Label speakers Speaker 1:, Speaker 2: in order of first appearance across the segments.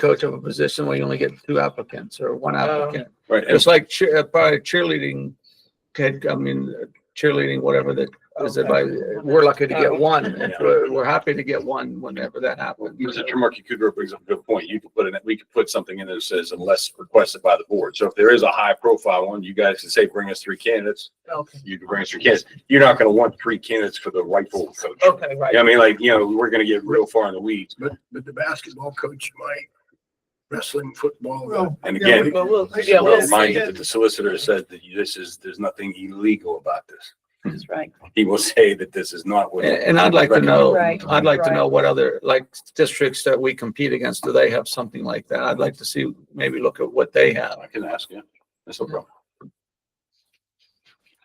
Speaker 1: coach of a position where you only get two applicants or one applicant.
Speaker 2: Right.
Speaker 1: It's like cheer, uh, probably cheerleading, kid, I mean, cheerleading, whatever that is, it by, we're lucky to get one. We're, we're happy to get one whenever that happens.
Speaker 2: Mr. Markey Kugler brings up a good point. You could put in, we could put something in there that says unless requested by the board. So if there is a high profile one, you guys can say, bring us three candidates.
Speaker 3: Okay,
Speaker 2: You can bring us three candidates. You're not gonna want three candidates for the rightful coach.
Speaker 3: okay, right.
Speaker 2: I mean, like, you know, we're gonna get real far in the weeds.
Speaker 4: But, but the basketball coach might, wrestling, football.
Speaker 3: Well,
Speaker 2: And
Speaker 3: yeah,
Speaker 2: again,
Speaker 3: But we'll,
Speaker 2: I just
Speaker 3: yeah,
Speaker 2: want
Speaker 3: we'll
Speaker 2: to
Speaker 3: see.
Speaker 2: remind you that the solicitor said that this is, there's nothing illegal about this.
Speaker 3: That's right.
Speaker 2: He will say that this is not what.
Speaker 1: And, and I'd like to know,
Speaker 3: Right,
Speaker 1: I'd like to
Speaker 3: right.
Speaker 1: know what other, like, districts that we compete against, do they have something like that? I'd like to see, maybe look at what they have.
Speaker 2: I can ask you. That's no problem.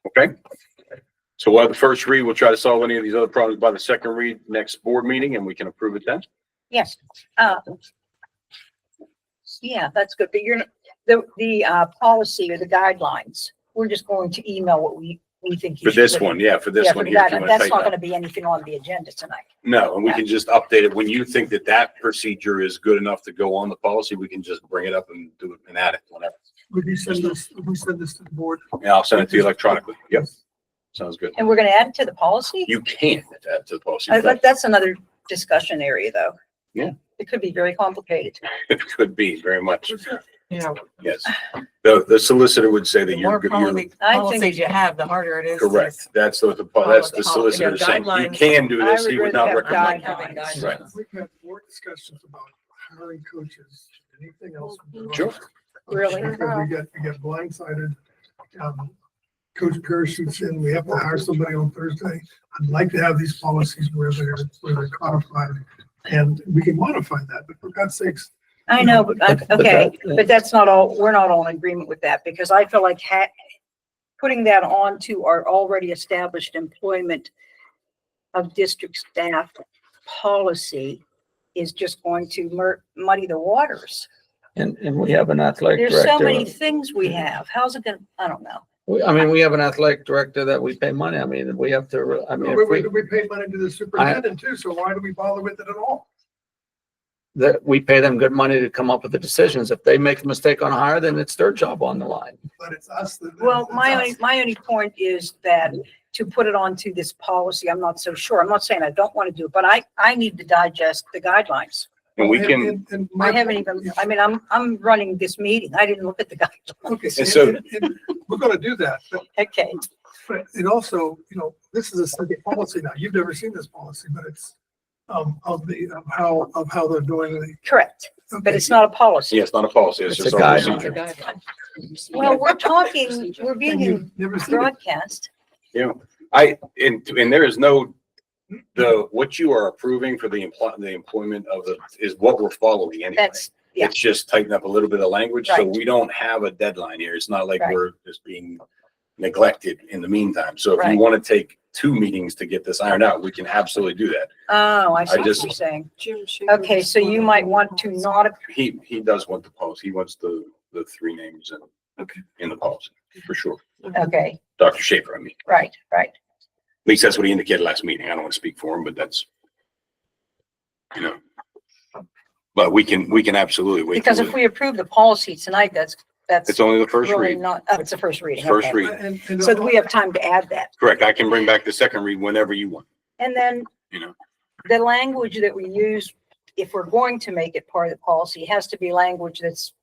Speaker 2: Okay. So we'll have the first read. We'll try to solve any of these other problems by the second read next board meeting and we can approve it then.
Speaker 5: Yes, uh. Yeah, that's good, but you're, the, the, uh, policy or the guidelines, we're just going to email what we, we think. you
Speaker 2: For this
Speaker 5: should-
Speaker 2: one, yeah, for this
Speaker 5: Yeah,
Speaker 2: one
Speaker 5: for
Speaker 2: here. if
Speaker 5: that,
Speaker 2: you wanna
Speaker 5: That's
Speaker 2: take
Speaker 5: not
Speaker 2: that.
Speaker 5: gonna be anything on the agenda tonight.
Speaker 2: No, and we can just update it. When you think that that procedure is good enough to go on the policy, we can just bring it up and do it and add it whenever.
Speaker 6: Would you send this, would you send this to the board?
Speaker 2: Yeah, I'll send it to you electronically. Yep. Sounds good.
Speaker 5: And we're gonna add it to the policy?
Speaker 2: You can add to the policy.
Speaker 5: Uh, that- that's another discussion area, though.
Speaker 2: Yeah.
Speaker 5: It could be very complicated.
Speaker 2: It could be very much,
Speaker 3: Yeah.
Speaker 2: yes. The, the solicitor would say that
Speaker 3: The
Speaker 2: you're,
Speaker 3: more
Speaker 2: you're
Speaker 3: policy-
Speaker 5: I
Speaker 3: policies
Speaker 5: think,
Speaker 3: you have, the harder it is. to-
Speaker 2: correct. That's what the,
Speaker 3: follow
Speaker 2: that's
Speaker 3: the
Speaker 2: the
Speaker 3: policy.
Speaker 2: solicitor
Speaker 3: Yeah,
Speaker 2: saying, you
Speaker 3: guidelines.
Speaker 2: can do this,
Speaker 5: I
Speaker 2: he
Speaker 5: would
Speaker 2: would not
Speaker 5: rather have
Speaker 2: recommend.
Speaker 3: Having
Speaker 5: Guidelines.
Speaker 2: Right.
Speaker 3: guidelines.
Speaker 6: We can have more discussions about hiring coaches, than anything else.
Speaker 2: Sure.
Speaker 5: Really?
Speaker 6: Because we get, we get blindsided. Um, Coach Parrish shoots in, we have to hire somebody on Thursday. I'd like to have these policies where they're, where they're codified. And we can modify that, but for God's sakes,
Speaker 5: I know, but, uh,
Speaker 1: But
Speaker 5: okay.
Speaker 1: that-
Speaker 5: But that's not all, we're not all in agreement with that because I feel like ha- putting that on to our already established employment of district staff policy is just going to mur- muddy the waters.
Speaker 1: And, and we have an athletic
Speaker 5: There's so many
Speaker 1: director.
Speaker 5: things we have. How's it gonna, I don't know.
Speaker 1: We- I mean, we have an athletic director that we pay money. I mean, we have to, re- I mean,
Speaker 6: we,
Speaker 1: if
Speaker 6: we
Speaker 1: we,
Speaker 6: we paid money to the superintendent too, so why do we bother with it at all?
Speaker 1: that we pay them good money to come up with the decisions. If they make a mistake on a hire, then it's their job on the line.
Speaker 6: But it's us that.
Speaker 5: Well,
Speaker 6: it's
Speaker 5: my
Speaker 6: us.
Speaker 5: only, my only point is that to put it onto this policy, I'm not so sure. I'm not saying I don't want to do it, but I, I need to digest the guidelines.
Speaker 2: And we can,
Speaker 6: And- and my-
Speaker 5: I haven't even, I mean, I'm, I'm running this meeting. I didn't look at the guidelines.
Speaker 6: Okay,
Speaker 2: And so-
Speaker 6: and- and we're gonna do that, but,
Speaker 5: Okay.
Speaker 6: but it also, you know, this is a second policy now. You've never seen this policy, but it's um, of the, of how, of how they're doing the.
Speaker 5: Correct, but
Speaker 6: okay,
Speaker 5: it's not a policy.
Speaker 2: yeah, it's not a policy, it's
Speaker 1: It's
Speaker 2: just
Speaker 1: a
Speaker 2: a
Speaker 1: guideline.
Speaker 2: procedure.
Speaker 5: Well, we're talking, we're
Speaker 6: and
Speaker 5: being
Speaker 6: you've Never seen it.
Speaker 5: broadcast.
Speaker 2: I, and, and there is no, the, what you are approving for the employ, the employment of the, is what we're following anyway.
Speaker 5: That's, yeah.
Speaker 2: It's just tighten up a little bit of language, so
Speaker 5: Right.
Speaker 2: we don't have a deadline here. It's not like
Speaker 5: Right.
Speaker 2: we're just being neglected in the meantime. So if you
Speaker 5: Right.
Speaker 2: want to take two meetings to get this ironed out, we can absolutely do that.
Speaker 5: oh, I see
Speaker 2: I
Speaker 5: what
Speaker 2: just-
Speaker 5: you're saying. Okay, so you might want to not, ap-
Speaker 2: He, he does want the policy. He wants the, the three names in.
Speaker 6: Okay.
Speaker 2: In the policy, for sure.
Speaker 5: okay,
Speaker 2: Dr. Schaefer, I mean,
Speaker 5: right, right.
Speaker 2: at least that's what he indicated last meeting. I don't want to speak for him, but that's, you know. But we can, we can absolutely wait.
Speaker 5: Because
Speaker 2: till
Speaker 5: if
Speaker 2: the-
Speaker 5: we approve the policy tonight, that's, that's
Speaker 2: It's only the first
Speaker 5: really
Speaker 2: read.
Speaker 5: not, oh, it's the first reading.
Speaker 2: First
Speaker 5: okay.
Speaker 2: read.
Speaker 6: And- and-
Speaker 5: So that we have time to add that.
Speaker 2: Correct. I can bring back the second read whenever you want.
Speaker 5: And then
Speaker 2: You know.
Speaker 5: the language that we use, if we're going to make it part of the policy, has to be language that's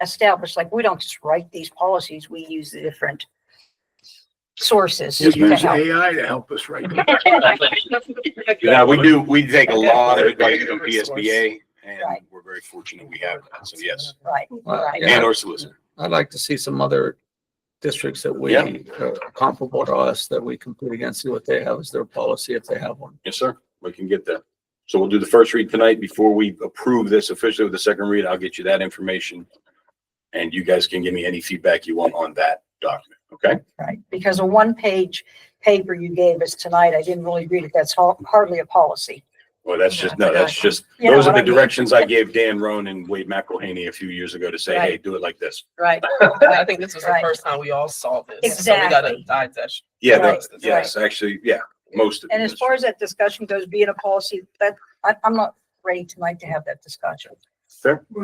Speaker 5: established, like we don't just write these policies, we use the different sources
Speaker 4: Just
Speaker 5: to
Speaker 4: use
Speaker 5: help.
Speaker 4: AI to help us right now.
Speaker 2: Yeah, we do, we take a lot of advice from
Speaker 4: Resource.
Speaker 2: PSBA and
Speaker 5: Right.
Speaker 2: we're very fortunate we have that. So yes,
Speaker 5: Right,
Speaker 1: Well,
Speaker 5: right.
Speaker 1: Uh, yeah.
Speaker 2: and our solicitor.
Speaker 1: I'd like to see some other districts that we,
Speaker 2: Yeah.
Speaker 1: uh, comparable to us, that we compete against, see what they have as their policy, if they have one.
Speaker 2: Yes, sir. We can get that. So we'll do the first read tonight before we approve this officially with the second read. I'll get you that information. And you guys can give me any feedback you want on that document. Okay?
Speaker 5: Right, because a one-page paper you gave us tonight, I didn't really read it, that's har- hardly a policy.
Speaker 2: Well, that's just, no, that's just,
Speaker 5: You know
Speaker 2: those are
Speaker 5: what
Speaker 2: the
Speaker 5: I mean?
Speaker 2: directions I gave Dan Roan and Wade McElhaney a few years ago to say, hey, do it like this.
Speaker 5: Right,
Speaker 3: I think this was the
Speaker 5: Right.
Speaker 3: first time we all saw this. so we gotta
Speaker 5: Exactly.
Speaker 3: digest.
Speaker 2: Yeah,
Speaker 5: Right,
Speaker 2: that's, yes, actually, yeah, most of it.
Speaker 5: and as
Speaker 2: is.
Speaker 5: far as that discussion goes, being a policy, that, I, I'm not ready tonight to have that discussion.
Speaker 2: Fair.